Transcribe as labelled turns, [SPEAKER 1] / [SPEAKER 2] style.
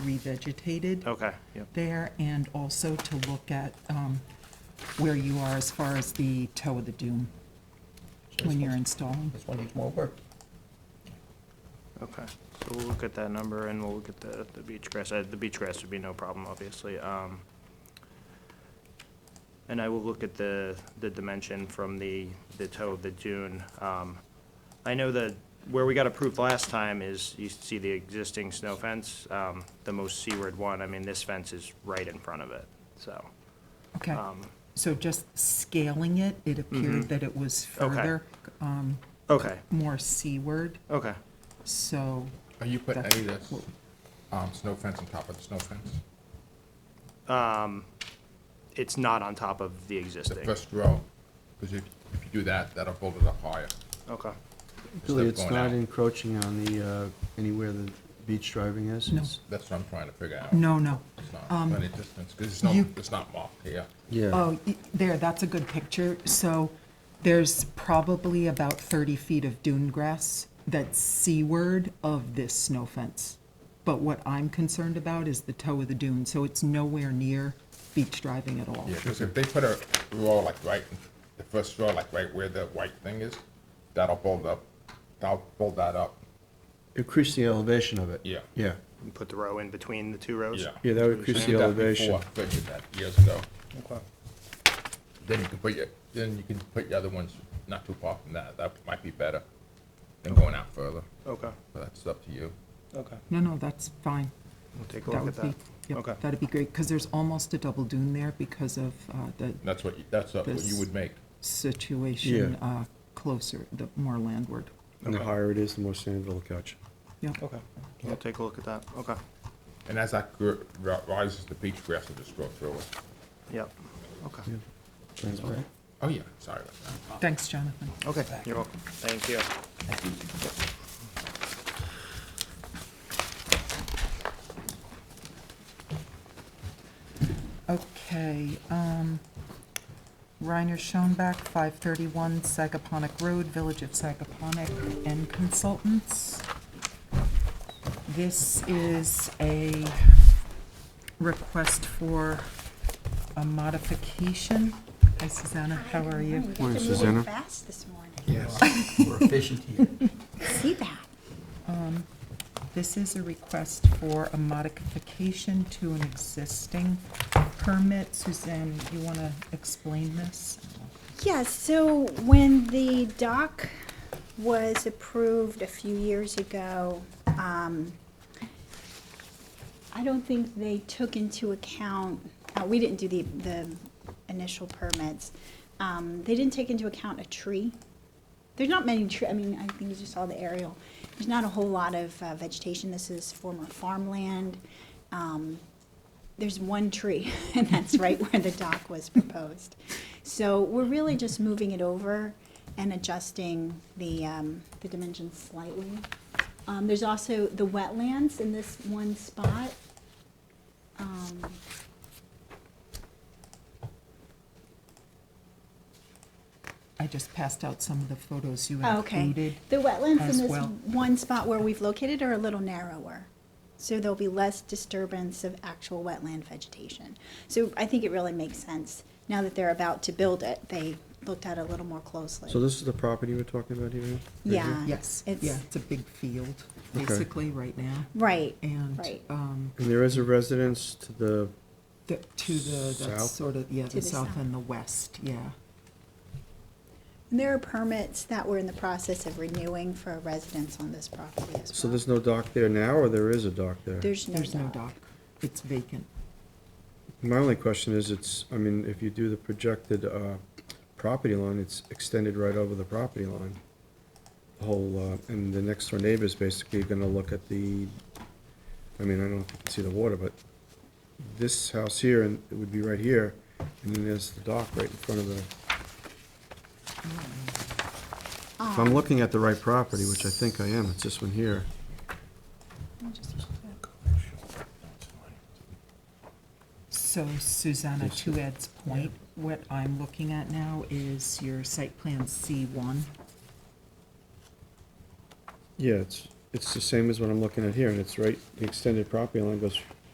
[SPEAKER 1] revegetated
[SPEAKER 2] Okay, yep.
[SPEAKER 1] there, and also to look at um, where you are as far as the toe of the dune when you're installing.
[SPEAKER 3] This one needs more work.
[SPEAKER 2] Okay, so we'll look at that number and we'll look at the, the beach grass. Uh, The beach grass would be no problem, obviously. Um, and I will look at the, the dimension from the, the toe of the dune. Um, I know that where we got approved last time is, you see the existing snow fence, um, the most seaward one. I mean, this fence is right in front of it, so.
[SPEAKER 1] Okay,
[SPEAKER 2] um, mm-hmm.
[SPEAKER 1] so just scaling it, it appeared that it was
[SPEAKER 2] Okay.
[SPEAKER 1] further, um,
[SPEAKER 2] Okay,
[SPEAKER 1] more seaward,
[SPEAKER 2] okay.
[SPEAKER 1] so,
[SPEAKER 4] Are you putting
[SPEAKER 1] That's
[SPEAKER 4] any of this, um, snow fence on top of the snow fence?
[SPEAKER 2] It's not on top of the
[SPEAKER 4] The
[SPEAKER 2] existing.
[SPEAKER 4] first row, because if, if you do that, that'll build it up higher.
[SPEAKER 2] Okay,
[SPEAKER 4] Instead
[SPEAKER 5] Julie,
[SPEAKER 4] of
[SPEAKER 5] it's
[SPEAKER 4] going
[SPEAKER 5] not
[SPEAKER 4] out.
[SPEAKER 5] encroaching on the, uh, anywhere the beach driving is?
[SPEAKER 1] No.
[SPEAKER 5] It's-
[SPEAKER 4] That's what I'm trying to figure out.
[SPEAKER 1] no, no.
[SPEAKER 4] It's not plenty of distance, because it's not,
[SPEAKER 1] Um, you-
[SPEAKER 4] it's not marked here.
[SPEAKER 5] Yeah,
[SPEAKER 1] Oh, y- there, that's a good picture. So there's probably about 30 feet of dune grass that's seaward of this snow fence. But what I'm concerned about is the toe of the dune, so it's nowhere near beach driving at all.
[SPEAKER 4] Yeah, because if they put a row like right, in- the first row like right where the white thing is, that'll build up, that'll build that up.
[SPEAKER 5] increase the elevation of it.
[SPEAKER 4] Yeah.
[SPEAKER 5] Yeah,
[SPEAKER 2] You put the row in between the two rows?
[SPEAKER 4] Yeah.
[SPEAKER 5] yeah, that would increase the
[SPEAKER 4] Did that
[SPEAKER 5] elevation.
[SPEAKER 4] before, I Figured that years ago.
[SPEAKER 2] Okay.
[SPEAKER 4] Then you can put your, then you can put your other ones not too far from that. That might be better than going out further.
[SPEAKER 2] Okay,
[SPEAKER 4] But that's up to you.
[SPEAKER 2] okay.
[SPEAKER 1] No, no, that's fine.
[SPEAKER 2] We'll take a
[SPEAKER 1] That
[SPEAKER 2] look
[SPEAKER 1] would
[SPEAKER 2] at
[SPEAKER 1] be,
[SPEAKER 2] that.
[SPEAKER 1] yep,
[SPEAKER 2] Okay.
[SPEAKER 1] that'd be great, because there's almost a double dune there because of uh, the
[SPEAKER 4] That's what, you- that's what
[SPEAKER 1] This-
[SPEAKER 4] you would make.
[SPEAKER 1] situation
[SPEAKER 5] Yeah.
[SPEAKER 1] uh, closer, the more landward.
[SPEAKER 5] And the higher it is, the more sand it'll catch.
[SPEAKER 1] Yep.
[SPEAKER 2] Okay, we'll take a look at that, okay,
[SPEAKER 4] And as that gr- ri- rises, the peach grass will just grow through it.
[SPEAKER 2] yep, okay,
[SPEAKER 5] Transparent.
[SPEAKER 4] Oh, yeah, sorry about that.
[SPEAKER 1] Thanks, Jonathan.
[SPEAKER 2] okay, you're welcome, thank you.
[SPEAKER 1] Okay, um, Reiner Schoenbach, 531 Sagaponic Road, Village of Sagaponic, and Consultants. This is a request for a modification. Hi Susanna, how are you?
[SPEAKER 5] Morning,
[SPEAKER 6] Morning,
[SPEAKER 5] Susanna.
[SPEAKER 6] Susanna. Fast this morning.
[SPEAKER 3] Yes. We're efficient here.
[SPEAKER 6] See that?
[SPEAKER 1] This is a request for a modification to an existing permit. Suzanne, you want to explain this?
[SPEAKER 6] Yeah, so when the dock was approved a few years ago, um, I don't think they took into account, uh, we didn't do the, the initial permits. Um, they didn't take into account a tree. There's not many tree, I mean, I think you just saw the aerial. There's not a whole lot of uh, vegetation. This is former farmland. Um, there's one tree, and that's right where the dock was proposed. So we're really just moving it over and adjusting the, um, the dimensions slightly. Um, there's also the wetlands in this one spot. Um,
[SPEAKER 1] I just passed out some of the photos you
[SPEAKER 6] Oh, Okay,
[SPEAKER 1] included.
[SPEAKER 6] the wetlands
[SPEAKER 1] as
[SPEAKER 6] in this
[SPEAKER 1] well.
[SPEAKER 6] one spot where we've located are a little narrower. So there'll be less disturbance of actual wetland vegetation. So I think it really makes sense. Now that they're about to build it, they looked at it a little more closely.
[SPEAKER 5] So this is the property we're talking about here? right here?
[SPEAKER 6] Yeah.
[SPEAKER 1] Yes,
[SPEAKER 6] Uh, It's-
[SPEAKER 1] yeah, it's a big field,
[SPEAKER 5] Okay.
[SPEAKER 1] basically, right now.
[SPEAKER 6] Right,
[SPEAKER 1] And
[SPEAKER 6] Right.
[SPEAKER 1] um,
[SPEAKER 5] And there is a residence to the,
[SPEAKER 1] the- to the, that's
[SPEAKER 5] South?
[SPEAKER 1] sort of, yeah,
[SPEAKER 6] To
[SPEAKER 1] the
[SPEAKER 6] the
[SPEAKER 1] south
[SPEAKER 6] south.
[SPEAKER 1] and the west, yeah.
[SPEAKER 6] And There are permits that we're in the process of renewing for residents on this property as well.
[SPEAKER 5] so there's no dock there now, or there is a dock there?
[SPEAKER 6] There's no
[SPEAKER 1] There's no
[SPEAKER 6] dock.
[SPEAKER 1] dock. It's vacant.
[SPEAKER 5] My only question is, it's, I mean, if you do the projected uh, property line, it's extended right over the property line. The Whole, uh, and the next door neighbor's basically gonna look at the, I mean, I don't know if you can see the water, but this house here, and it would be right here, and then there's the dock right in front of the, if I'm looking at the right property, which I think I am, it's this one here.
[SPEAKER 1] So Susanna, to Ed's point, what I'm looking at now is your site plan C1.
[SPEAKER 5] Yeah, it's, it's the same as what I'm looking at here, and it's right, the extended property line goes